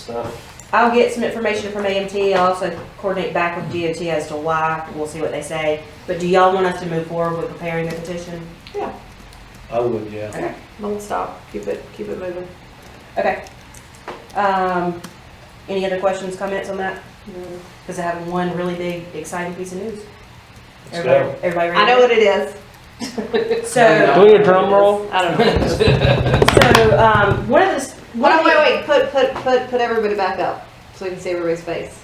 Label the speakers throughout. Speaker 1: stuff.
Speaker 2: I'll get some information from AMT. I'll also coordinate back with DOT as to why. We'll see what they say. But do y'all want us to move forward with preparing the petition?
Speaker 1: I would, yeah.
Speaker 2: Okay.
Speaker 3: Don't stop. Keep it, keep it moving.
Speaker 2: Okay. Um, any other questions, comments on that? Because I have one really big, exciting piece of news.
Speaker 1: Let's
Speaker 2: Everybody,
Speaker 1: go.
Speaker 2: everybody ready?
Speaker 3: I know what it is.
Speaker 2: So,
Speaker 4: Do your drum roll.
Speaker 3: I don't know.
Speaker 2: so, um, one of the, s- one
Speaker 3: Wait,
Speaker 2: of
Speaker 3: wait,
Speaker 2: the,
Speaker 3: wait. Put, put, put, put everybody back up so we can see everybody's face.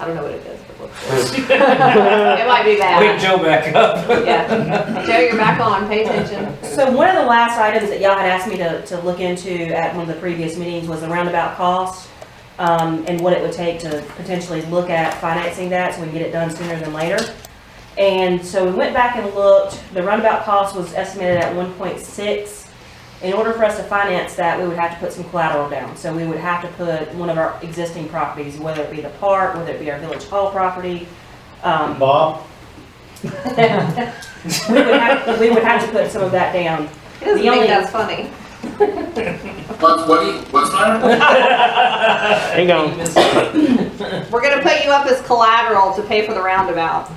Speaker 3: I don't know what it is, but look. for it. It might be
Speaker 1: Wake
Speaker 3: bad.
Speaker 1: Joe back up.
Speaker 3: Yeah. Joe, you're back on. Pay attention.
Speaker 2: so one of the last items that y'all had asked me to, to look into at one of the previous meetings was the roundabout cost, um, and what it would take to potentially look at financing that so we can get it done sooner than later. And so we went back and looked, the roundabout cost was estimated at one point six. In order for us to finance that, we would have to put some collateral down. So we would have to put one of our existing properties, whether it be the park, whether it be our village hall property. Um,
Speaker 1: Bob?
Speaker 2: we would have, we would have to put some of that down.
Speaker 3: He
Speaker 2: The
Speaker 3: doesn't think
Speaker 2: only-
Speaker 3: that's funny.
Speaker 5: What, what do you, what's that?
Speaker 4: Hang on.
Speaker 3: We're gonna put you up as collateral to pay for the roundabout.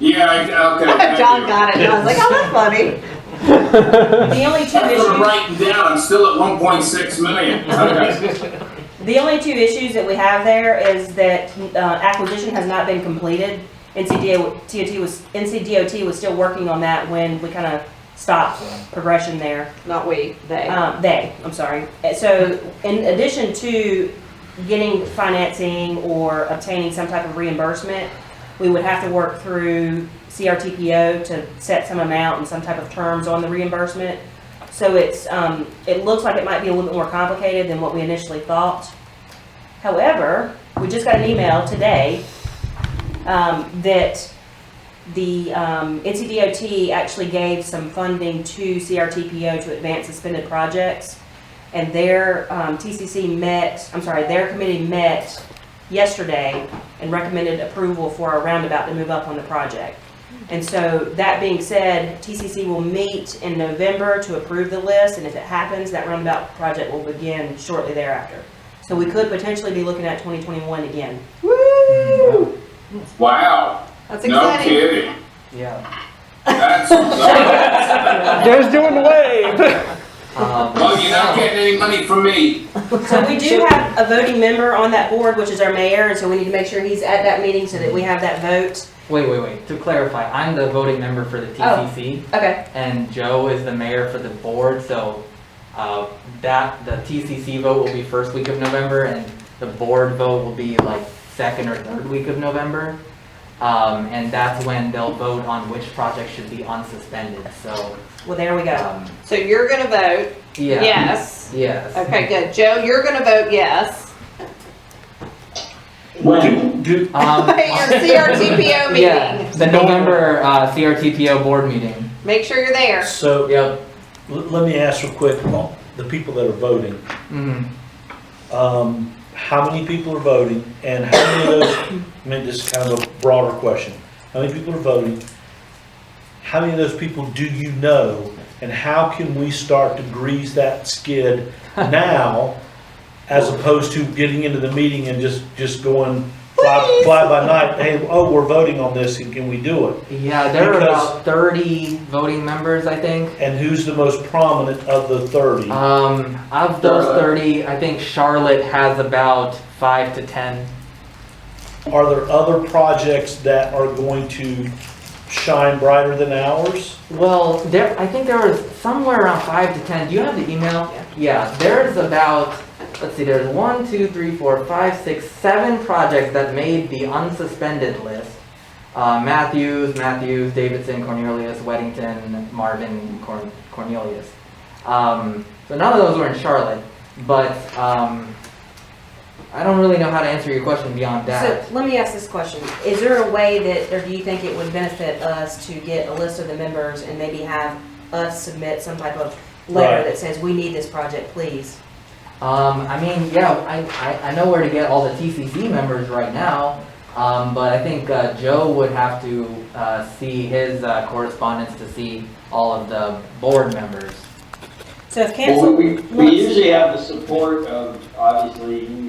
Speaker 5: Yeah, I, okay. thank
Speaker 3: John
Speaker 5: you.
Speaker 3: got it. and I was like, oh, that's funny.
Speaker 2: The only two
Speaker 5: I'm gonna
Speaker 2: issues,
Speaker 5: write it down, I'm still at one point six million, okay.
Speaker 2: the only two issues that we have there is that uh, acquisition has not been completed. NCDOT was, NCDOT was still working on that when we kind of stopped progression there.
Speaker 3: Not we, they.
Speaker 2: Um, they, I'm sorry. Uh, So in addition to getting financing or obtaining some type of reimbursement, we would have to work through CRTPO to set some amount and some type of terms on the reimbursement. So it's, um, it looks like it might be a little bit more complicated than what we initially thought. However, we just got an email today, um, that the um, NCDOT actually gave some funding to CRTPO to advance suspended projects. And their um, TCC met, I'm sorry, their committee met yesterday and recommended approval for a roundabout to move up on the project. And so, that being said, TCC will meet in November to approve the list, and if it happens, that roundabout project will begin shortly thereafter. So we could potentially be looking at 2021 again.
Speaker 3: Woo!
Speaker 5: Wow,
Speaker 3: That's
Speaker 5: no
Speaker 3: exciting.
Speaker 5: kidding.
Speaker 6: Yeah.
Speaker 5: That's, well,
Speaker 4: Joe's doing the wave.
Speaker 6: Um,
Speaker 5: you're not getting any money from me.
Speaker 2: So we do have a voting member on that board, which is our mayor, and so we need to make sure he's at that meeting so that we have that vote.
Speaker 6: Wait, wait, wait. To clarify, I'm the voting member for the TCC,
Speaker 2: Okay.
Speaker 6: and Joe is the mayor for the board. So uh, that the TCC vote will be first week of November, and the board vote will be like second or third week of November. Um, and that's when they'll vote on which project should be unsuspended. So
Speaker 2: Well, there we go.
Speaker 6: um,
Speaker 3: So you're gonna vote
Speaker 6: yeah,
Speaker 3: yes.
Speaker 6: yes.
Speaker 3: Okay, good. Joe, you're gonna vote yes.
Speaker 5: When?
Speaker 6: Um,
Speaker 3: Your CRTPO
Speaker 6: yeah,
Speaker 3: meeting.
Speaker 6: the November uh, CRTPO board meeting.
Speaker 3: Make sure you're there.
Speaker 1: So,
Speaker 6: Yep.
Speaker 1: l- let me ask real quick, well, the people that are voting,
Speaker 6: hmm
Speaker 1: um, how many people are voting? And how many of those, I mean, this is kind of a broader question. How many people are voting? How many of those people do you know? And how can we start to grease that skid now as opposed to getting into the meeting and just, just going fly, fly by night? Hey, oh, we're voting on this and can we do it?
Speaker 6: Yeah, there are
Speaker 1: Because-
Speaker 6: about 30 voting members, I think.
Speaker 1: And who's the most prominent of the 30?
Speaker 6: Um, of those
Speaker 5: Charlotte.
Speaker 6: 30, I think Charlotte has about 5 to 10.
Speaker 1: Are there other projects that are going to shine brighter than ours?
Speaker 6: Well, there, I think there was somewhere around 5 to 10. Do you have the email?
Speaker 3: Yeah.
Speaker 6: Yeah, there's about, let's see, there's one, two, three, four, five, six, seven projects that made the unsuspended list. Uh, Matthews, Matthews, Davidson, Cornelius, Weddington, Marvin, Corn- Cornelius. Um, so none of those were in Charlotte, but um, I don't really know how to answer your question beyond that.
Speaker 2: So let me ask this question. Is there a way that, or do you think it would benefit us to get a list of the members and maybe have us submit some type of letter
Speaker 1: Right.
Speaker 2: that says, we need this project, please?
Speaker 6: Um, I mean, yeah, I, I, I know where to get all the TCC members right now, um, but I think uh, Joe would have to uh, see his uh, correspondence to see all of the board members.
Speaker 2: So if
Speaker 7: Well,
Speaker 2: council
Speaker 7: we, we
Speaker 2: wants-
Speaker 7: usually have the support of, obviously,